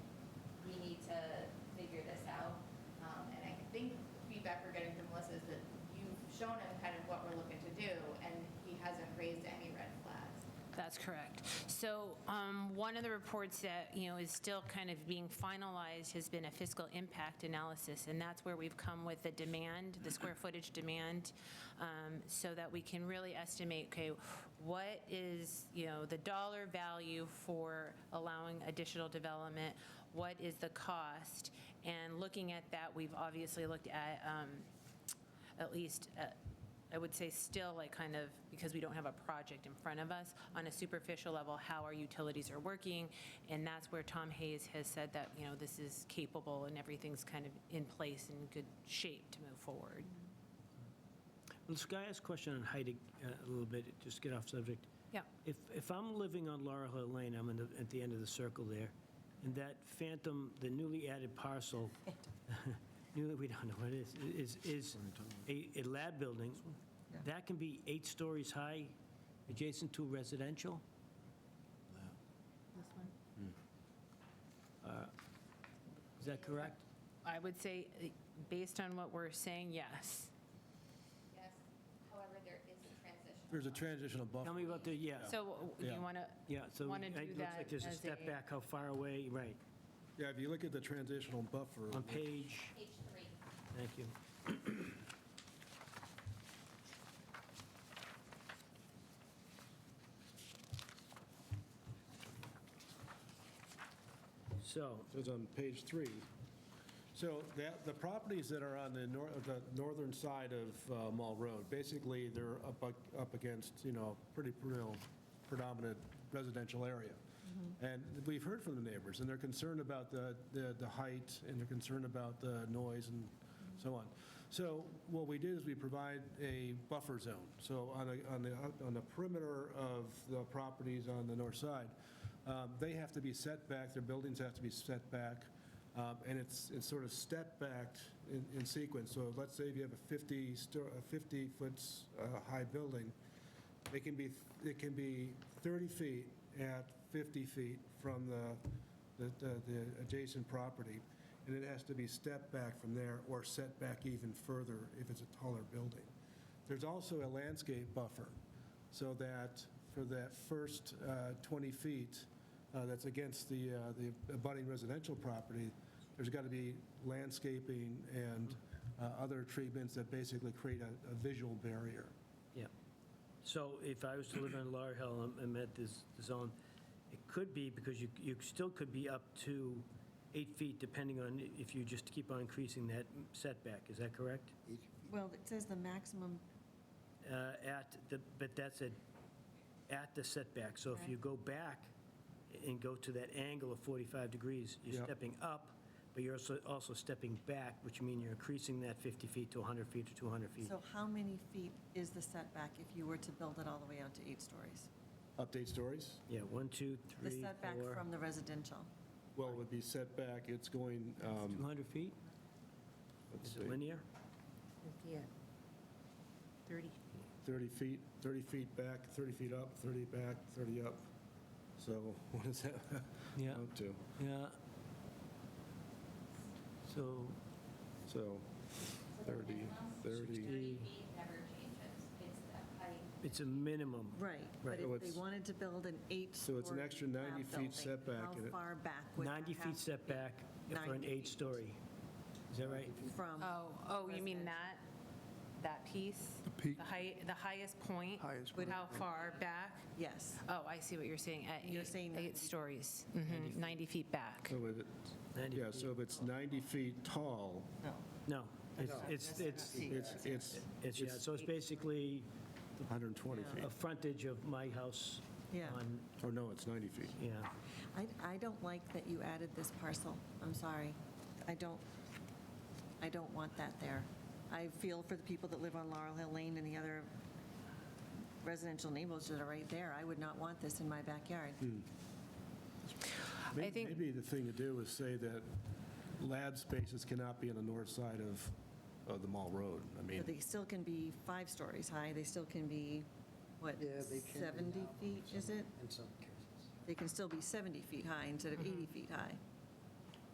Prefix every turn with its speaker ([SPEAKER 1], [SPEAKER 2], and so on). [SPEAKER 1] Um, shown him kind of what we're looking to do, and he hasn't raised any red flags.
[SPEAKER 2] That's correct. So um, one of the reports that, you know, is still kind of being finalized has been a fiscal impact analysis, and that's where we've come with the demand, the square footage demand, um, so that we can really estimate, okay, what is, you know, the dollar value for allowing additional development? What is the cost? And looking at that, we've obviously looked at um, at least, uh, I would say still like kind of, because we don't have a project in front of us, on a superficial level, how our utilities are working. And that's where Tom Hayes has said that, you know, this is capable and everything's kind of in place and good shape to move forward.
[SPEAKER 3] Let's, can I ask a question on height a a little bit, just get off subject?
[SPEAKER 2] Yeah.
[SPEAKER 3] If, if I'm living on Laurel Hill Lane, I'm in the, at the end of the circle there, and that phantom, the newly added parcel, newly, we don't know what it is, is, is a, a lab building, that can be eight stories high, adjacent to residential?
[SPEAKER 2] This one?
[SPEAKER 3] uh, Is that correct?
[SPEAKER 2] I would say, uh, based on what we're saying, yes.
[SPEAKER 1] Yes, however, there is a transition.
[SPEAKER 4] There's a transitional buffer.
[SPEAKER 3] Tell me about the, yeah,
[SPEAKER 2] So do
[SPEAKER 4] Yeah.
[SPEAKER 2] you want to?
[SPEAKER 3] yeah, so.
[SPEAKER 2] Wanna
[SPEAKER 3] it
[SPEAKER 2] do
[SPEAKER 3] looks
[SPEAKER 2] that
[SPEAKER 3] like There's a
[SPEAKER 2] as
[SPEAKER 3] step
[SPEAKER 2] a-
[SPEAKER 3] back, how far away, right,
[SPEAKER 4] Yeah, if you look at the transitional buffer.
[SPEAKER 3] on page,
[SPEAKER 1] Page three.
[SPEAKER 3] thank you. So,
[SPEAKER 4] So it's on page three. So that, the properties that are on the nor, the northern side of uh, Mall Road, basically, they're up, ag- up against, you know, pretty, you know, predominant residential area. And we've heard from the neighbors, and they're concerned about the, the, the height, and they're concerned about the noise and so on. So what we did is we provide a buffer zone. So on the, on the, on the perimeter of the properties on the north side, um, they have to be set back, their buildings have to be set back, um, and it's, it's sort of step backed in, in sequence. So let's say if you have a 50, sto- a 50-foot high building, it can be, it can be 30 feet at 50 feet from the, the- the the adjacent property, and it has to be stepped back from there or set back even further if it's a taller building. There's also a landscape buffer, so that for that first uh, 20 feet uh, that's against the, uh, the abutting residential property, there's got to be landscaping and uh, other treatments that basically create a a visual barrier.
[SPEAKER 3] yeah. So if I was to live on Laurel Hill and- and met this zone, it could be, because you, you still could be up to eight feet, depending on if you just keep on increasing that setback, is that correct?
[SPEAKER 5] Well, it says the maximum,
[SPEAKER 3] Uh, At the, but that's at, at the setback, so if you go back and go to that angle of 45 degrees, you're
[SPEAKER 4] Yeah.
[SPEAKER 3] stepping up, but you're also, also stepping back, which means you're increasing that 50 feet to 100 feet to 200
[SPEAKER 4] Hmm.
[SPEAKER 3] feet.
[SPEAKER 5] so how many feet is the setback if you were to build it all the way out to eight stories?
[SPEAKER 4] Update stories?
[SPEAKER 3] Yeah, one, two,
[SPEAKER 5] The
[SPEAKER 3] three,
[SPEAKER 5] setback
[SPEAKER 3] four.
[SPEAKER 5] from the residential,
[SPEAKER 4] Well, it would be setback, it's going, um,
[SPEAKER 3] 200 feet?
[SPEAKER 4] let's
[SPEAKER 3] Is
[SPEAKER 4] see,
[SPEAKER 3] it linear?
[SPEAKER 2] Yeah. 30.
[SPEAKER 4] 30 feet, 30 feet back, 30 feet up, 30 back, 30 up. So what is that
[SPEAKER 3] Yeah,
[SPEAKER 4] up to?
[SPEAKER 3] yeah. So,
[SPEAKER 4] So 30, 30.
[SPEAKER 1] Thirty feet never changes, it's the height.
[SPEAKER 3] it's a minimum.
[SPEAKER 5] right.
[SPEAKER 3] Right.
[SPEAKER 5] But
[SPEAKER 4] Oh,
[SPEAKER 5] if
[SPEAKER 4] it's-
[SPEAKER 5] they wanted to build an eight-story.
[SPEAKER 4] So it's an extra 90
[SPEAKER 5] lab
[SPEAKER 4] feet
[SPEAKER 5] building,
[SPEAKER 4] setback in it.
[SPEAKER 5] How far back would that
[SPEAKER 3] 90
[SPEAKER 5] have
[SPEAKER 3] feet
[SPEAKER 5] to
[SPEAKER 3] setback for
[SPEAKER 5] 90
[SPEAKER 3] an
[SPEAKER 5] feet.
[SPEAKER 3] eight-story. Is that right?
[SPEAKER 5] be From,
[SPEAKER 2] Oh, oh, you mean that, that piece? The
[SPEAKER 6] peak.
[SPEAKER 2] The height, the highest point?
[SPEAKER 6] Highest
[SPEAKER 2] With How far back?
[SPEAKER 5] yes,
[SPEAKER 2] Oh, I see what you're saying. At
[SPEAKER 5] You're
[SPEAKER 2] eight-
[SPEAKER 5] saying Mm-hmm.
[SPEAKER 2] Eight
[SPEAKER 5] 90.
[SPEAKER 2] stories, Mhm, 90 feet back.
[SPEAKER 4] So if it,
[SPEAKER 3] 90
[SPEAKER 4] yeah,
[SPEAKER 3] feet.
[SPEAKER 4] so if it's 90 feet tall,
[SPEAKER 5] no.
[SPEAKER 3] No, it's, it's, it's,
[SPEAKER 4] it's, it's
[SPEAKER 3] it's, yeah, so it's basically
[SPEAKER 4] 120 feet.
[SPEAKER 3] a frontage of my house
[SPEAKER 5] Yeah.
[SPEAKER 3] on,
[SPEAKER 4] Or no, it's 90 feet.
[SPEAKER 3] yeah.
[SPEAKER 5] I, I don't like that you added this parcel, I'm sorry. I don't, I don't want that there. I feel for the people that live on Laurel Hill Lane and the other residential neighborhoods that are right there. I would not want this in my backyard.
[SPEAKER 4] May-
[SPEAKER 2] think-
[SPEAKER 4] Maybe the thing to do is say that lab spaces cannot be on the north side of, of the Mall Road. I mean,
[SPEAKER 5] But they still can be five stories high, they still can be, what, 70 feet, is it?
[SPEAKER 7] in some cases.
[SPEAKER 4] Mm-hmm.
[SPEAKER 5] They can still be 70 feet high instead of 80 feet high.